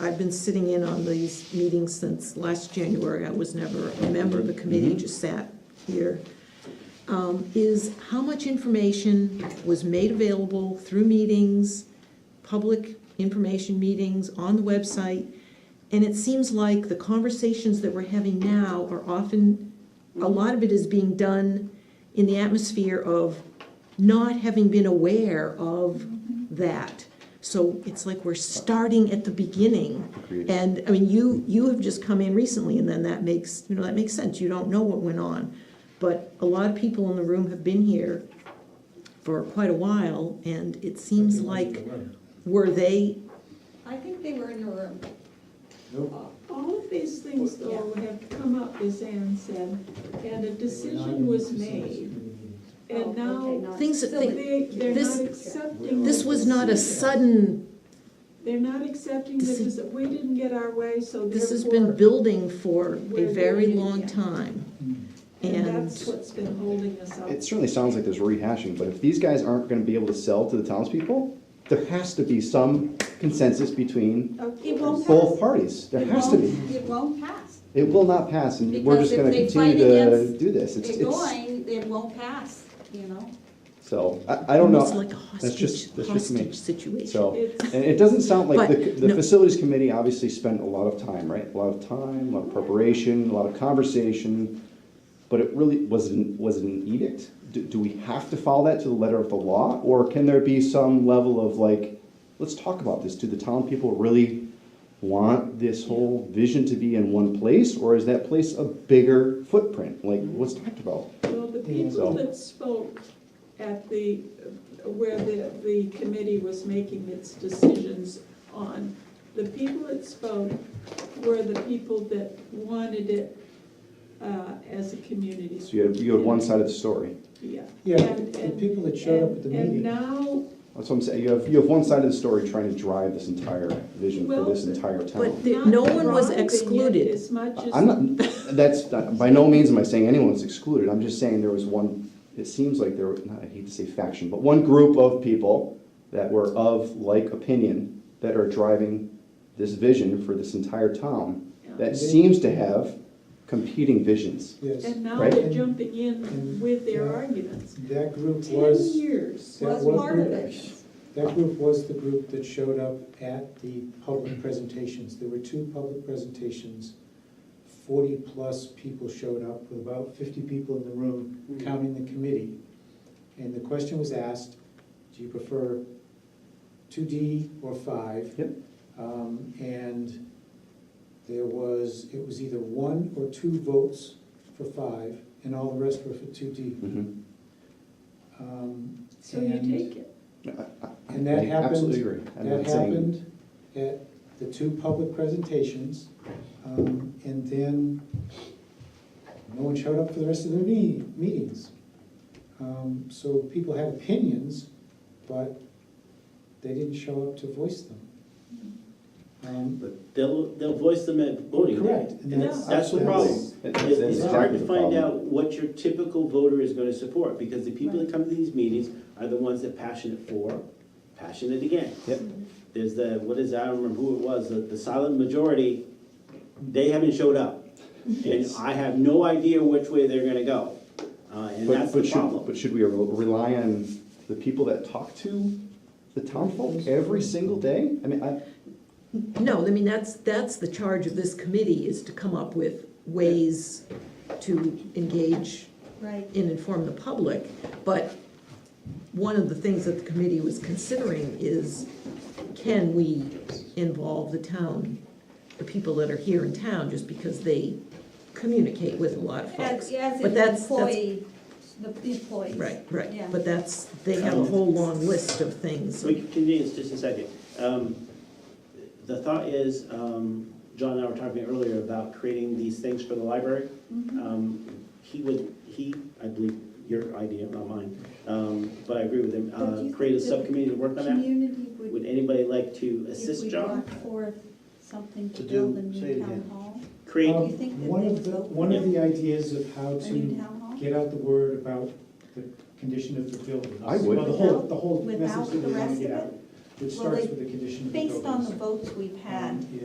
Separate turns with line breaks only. I've been sitting in on these meetings since last January. I was never a member of the committee, just sat here. Um, Is how much information was made available through meetings, public information meetings, on the website? And it seems like the conversations that we're having now are often, a lot of it is being done in the atmosphere of not having been aware of that. So it's like we're starting at the beginning. And, I mean, you, you have just come in recently, and then that makes, you know, that makes sense, you don't know what went on. But a lot of people in the room have been here for quite a while, and it seems like, were they,
I think they were in the room.
Uh, All of these things though have come up, as Ann said, and a decision was made.
Oh,
And now
things that, they-
they, they're
This-
not accepting.
this
the
was not a
decision.
sudden,
They're not accepting the,
This is-
deci- we didn't get our way, so
this has
therefore.
been building for a
We're
very
doing it
long
again.
time.
And that's
And,
what's been holding us up.
It certainly sounds like there's rehashing, but if these guys aren't gonna be able to sell to the townspeople, there has to be some consensus between
Okay,
It
well,
won't
both
pass.
parties. There
It
has to be.
won't- It won't pass.
It will not pass, and we're
Because
just
if
gonna
they
continue
fight
to
against
do this. It's,
They're
it's,
going, it won't pass, you know?
so, I, I don't
almost
know.
like a
That's
hostage,
just- that's just me.
hostage situation.
So,
it's-
and it doesn't sound like
But,
the, the
no.
facilities committee obviously spent a lot of time, right? A lot of time, a lot of preparation, a lot of conversation, but it really wasn't, was it an edict? Do, do we have to follow that to the letter of the law? Or can there be some level of like, let's talk about this, do the town people really want this whole vision to be in one place? Or is that place a bigger footprint, like what's talked about?
Well, the people that spoke at the, where the, the committee was making its decisions on, the people that spoke were the people that wanted it uh, as a community.
So you had, you had one side of the story.
Yeah.
Yeah,
And-
the
and-
people that showed up at the
and- And
meeting.
now,
That's what I'm saying, you have, you have one side of the story trying to drive this entire vision for this
Well,
entire
But
town.
the- no one was
not driving it
excluded.
As much as.
I'm not, that's, by no means am I saying anyone's excluded, I'm just saying there was one, it seems like there, were- not- I hate to say faction, but one group of people that were of like opinion that are driving this vision for this entire town, that seems to have competing visions.
Yes,
And
and
now
Right.
they're jumping in with their arguments.
that group
Ten
was,
years.
Yeah,
Was
what
part of
group?
it.
that group was the group that showed up at the public presentations. There were two public presentations. Forty-plus people showed up, with about fifty people in the
Hmm.
room, counting the committee. And the question was asked, do you prefer two D or five?
Yep.
Um, and there was, it was either one or two votes for five, and all the rest were for two D.
Mhm.
Um,
So you
and-
take it.
And that
Mm-hmm. I Absolutely
happened,
agree. I'm
that
not saying-
happened at the two public presentations. um, And then no one showed up for the rest of the me- meetings. Um, So people had opinions, but they didn't show up to voice them. Um,
But they'll, they'll voice them at voting day.
Correct. and
And that's, that's the problem.
That's- that's
It's, it's hard
exactly
to
the
find
problem.
out what your typical voter is gonna support, because the people that come to these meetings are the ones that passionate for, passionate against.
Yep.
There's the, what is, I don't remember who it was, the, the silent majority, they haven't showed up. And
Yes.
I have no idea which way they're gonna go, uh, and
But,
that's
but
the
should,
problem.
but should we rely on the people that talk to the townfolk every single day? I mean, I,
No, I mean, that's, that's the charge of this committee, is to come up with ways to engage
Right.
and inform the public. But one of the things that the committee was considering is, can we involve the town, the people that are here in town, just because they communicate with a lot of folks?
As, as
But that's-
an
that's-
employee, the employees.
Right,
Yeah.
right, but that's, they have a whole long list of things.
We can continue this just a second. Um, The thought is, um, John and I were talking earlier about creating these things for the library.
Mhm.
Um, He would, he, I believe, your idea, not mine, um, but I agree with him,
But do you
uh, create a
think that
subcommittee to work on that.
Community would,
Would anybody like to
if
assist
we
John?
brought forth something to
To do-
build a
say it
new town
again.
hall,
Create,
um,
you think that
One of
they
the,
vote?
one of the ideas of how
a new
to
town hall?
get out the word about the condition of the building.
I would.
Well, The whole, the whole
Without
message that
the
we want
rest
to get
of
out,
it?
which
Well,
starts
they-
with the condition of the buildings.
Based on the votes we've had,
Um, yeah.